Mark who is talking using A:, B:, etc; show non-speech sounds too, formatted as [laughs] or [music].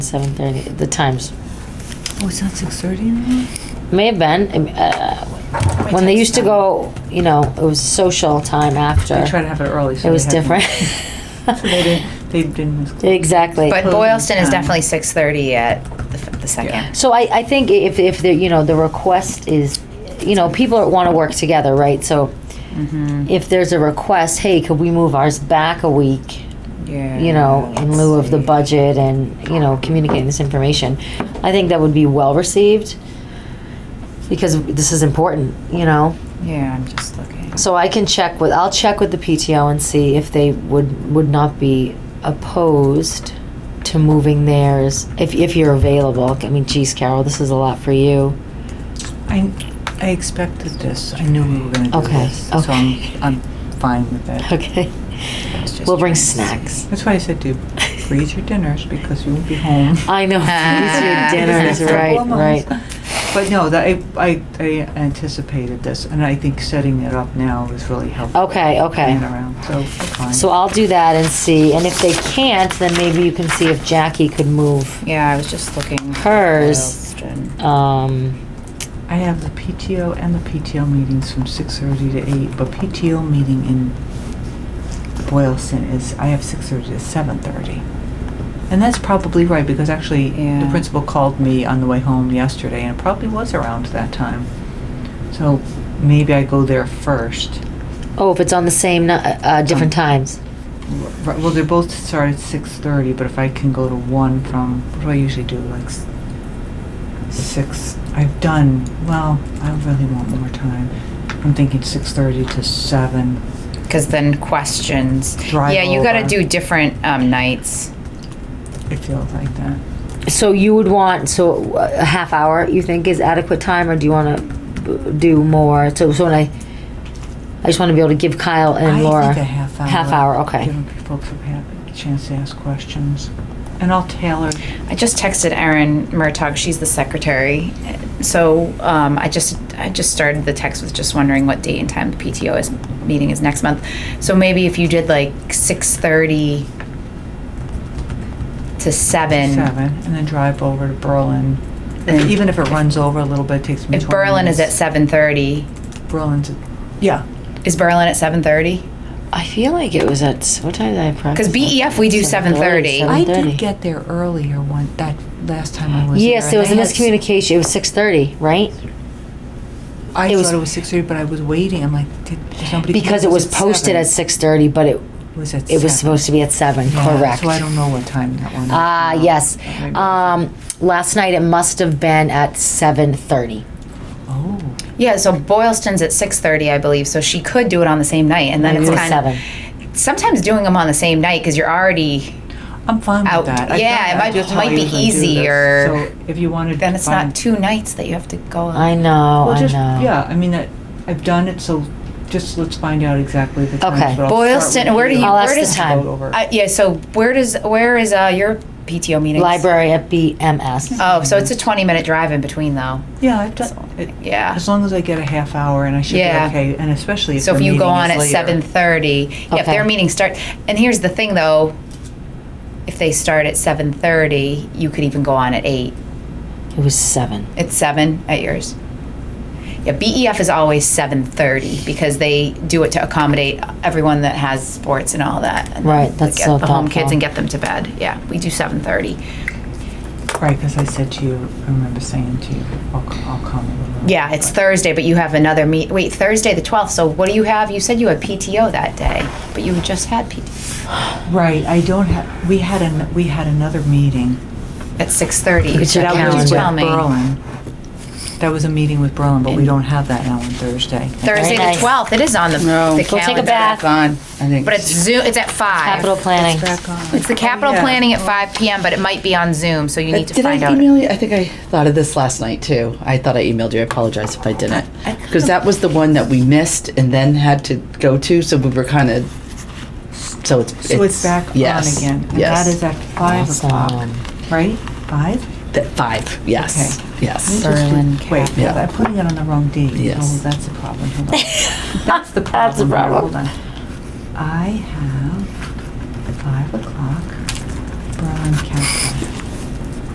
A: 7:30, the times.
B: Oh, it's not 6:30 anymore?
A: May have been, uh, when they used to go, you know, it was social time after.
B: They try to have it early. so
A: It was
B: they have-
A: different. [laughs]
B: So they didn't, they didn't.
A: Exactly.
C: But
B: Closing
C: Boylston is
B: time.
C: definitely six thirty at the, f- the second.
B: Yeah.
A: So I, I think if, if the, you know, the request is, you know, people want to work together, right? So
B: Mm-hmm.
A: if there's a request, hey, could we move ours back a week?
C: Yeah.
A: You know,
B: Ah,
A: in
C: let's
A: lieu of the
C: see.
A: budget and, you know, communicating this information. I think that would be well received because this is important, you know?
C: Yeah, I'm just looking.
A: So I can check with, I'll check with the PTO and see if they would, would not be opposed to moving theirs, if, if you're available. I mean, geez, Carol, this is a lot for you.
B: I, I expected this. I knew we were going to do
A: Okay,
B: this. So I'm,
A: okay.
B: I'm fine with that.
A: Okay,
C: It's just
A: we'll bring
C: trying-
A: snacks.
B: That's why I said to freeze your dinners because you won't be home.
A: [laughs] I know,
C: Ah.
A: it's your dinner is right, right.
B: But no, that, I, I, I anticipated this and I think setting it up now is really helpful.
A: Okay, okay.
B: Plan around, so we're fine.
A: So I'll do that and see, and if they can't, then maybe you can see if Jackie could move,
C: Yeah, I was just looking. for
A: Hers.
C: Boylston.
A: um,
B: I have the PTO and the PTO meetings from six thirty to eight, but PTO meeting in Boylston is, I have six thirty to seven thirty. And that's probably right, because actually, the
C: Yeah.
B: principal called me on the way home yesterday, and it probably was around that time. So maybe I go there first.
A: oh, if it's on the same, ni- uh, uh, different times.
B: R- Well, they're both start at six thirty, but if I can go to one from, what do I usually do, like s- six, I've done, well, I really want more time. I'm thinking six thirty to seven.
C: Because then questions.
B: Drive
C: yeah, you got to
B: over.
C: do different um, nights.
B: It feels like that.
A: So you would want, so uh, a half hour, you think is adequate time, or do you wanna b- do more? So, so when I, I just wanna be able to give Kyle and Laura.
B: I think a half hour.
A: Half hour, okay.
B: Giving folks a ha- a chance to ask questions, and I'll tailor.
C: I just texted Erin Murtaugh. She's the secretary. So um, I just I just started the text with just wondering what date and time the PTO is meeting is next month. So maybe if you did like six thirty to seven.
B: Seven, and then drive over to Berlin. If-
C: And-
B: Even if it runs over a little bit, it takes me
C: If
B: twenty
C: Berlin is at
B: minutes.
C: seven thirty,
B: Berlin's, at- yeah,
C: is Berlin at seven thirty?
A: I feel like it was at, what time did I practice?
B: E
C: BEF we do 7:30.
B: I
A: 7:30.
B: did get there earlier one, that last time I was there.
A: Yes, there was a miscommunication, it was six thirty, right?
B: I
A: It was-
B: thought it was six thirty, but I was waiting, I'm like, did did somebody?
A: Because it was posted at six thirty, but it,
B: was at
A: it was
B: seven.
A: supposed to be at seven,
B: Yeah,
A: correct?
B: So I don't know what time that one.
A: Ah, yes,
B: Maybe-
A: um, last night it must have been at seven thirty.
B: Oh,
C: Yeah, so Boylston's at six thirty, I believe. So she could do it on the same night, and then
A: Maybe
C: it's
A: it was
C: kind of sometimes doing them on the same night because you're already
B: I'm fine
C: Out.
B: with that. I've
C: Yeah,
B: done
C: it
B: that.
C: might-
B: Just how
C: might
B: I
C: be
B: usually do this.
C: easier.
B: So if you wanted.
C: then
B: to
C: it's
B: find-
C: not two nights that you have to go. on.
A: I know,
B: Well,
A: I know.
B: just, yeah, I mean, that, I've done it, so just let's find out exactly the times.
A: Okay.
B: but I'll start
C: Boylston,
B: with
C: where do you-
A: I'll
C: where
A: ask the
C: does-
A: time.
B: Vote over.
C: I, Uh, yeah. So where does where is uh, your PTO meeting?
A: Library at BMS.
C: Oh, so it's a twenty minute drive in between though.
B: Yeah, I've done,
C: So,
B: it,
C: yeah.
B: as long as I get a half hour and I should be
C: Yeah.
B: okay, and especially if
C: So
B: the
C: if you go
B: meeting
C: on
B: is
C: at
B: later.
C: seven thirty, yeah, if
A: Okay.
C: their meeting start, and here's the thing though, if they start at seven thirty, you could even go on at eight.
A: It was seven.
C: It's seven at yours. Yeah, BEF is always seven thirty because they do it to accommodate everyone that has sports and all that. and
A: Right,
C: to
A: that's
C: get
A: so
C: the home kids
A: thoughtful.
C: and get them to bed. Yeah, we do seven thirty.
B: Right, because I said to you, I remember saying to you, I'll, c- I'll come. a little early,
C: Yeah, it's
B: but-
C: Thursday, but you have another meet. Wait, Thursday the twelfth. So what do you have? You said you had PTO that day, but you just had PTO
B: Right, I don't have, we had an, we had another meeting.
C: at six thirty.
A: It's your
B: That
A: calendar.
B: was with
C: Tell me.
B: Berlin. That was a meeting with Berlin, but we don't have that now on Thursday.
C: Thursday
A: Very
C: the
A: nice.
C: twelfth. It is on the,
D: No.
C: the
A: Go take a
C: calendar.
A: bath.
D: on.
B: I think
C: But it's Zoom. It's at five.
A: Capital planning.
C: It's the capital planning at five p.m. But it might be on Zoom, so you need to
D: Did
C: find
D: I
C: out.
D: email you? I think I thought of this last night too. I thought I emailed you. I apologize if I didn't. Because that was the one that we missed and then had to go to, so we were kind of, so it's.
B: So it's back on
D: yes,
B: again, and that is
D: Yes.
B: at five o'clock,
A: Awesome.
B: right? Five?
D: That Five, yes,
B: Okay.
D: yes.
C: Berlin
B: Wait, hold
D: Yeah.
B: on, I'm putting it on the wrong date.
D: Yes.
B: Oh, that's a problem, hold on. That's the problem.
A: That's a
B: Here,
A: problem.
B: Hold on. I have five o'clock, Berlin Capital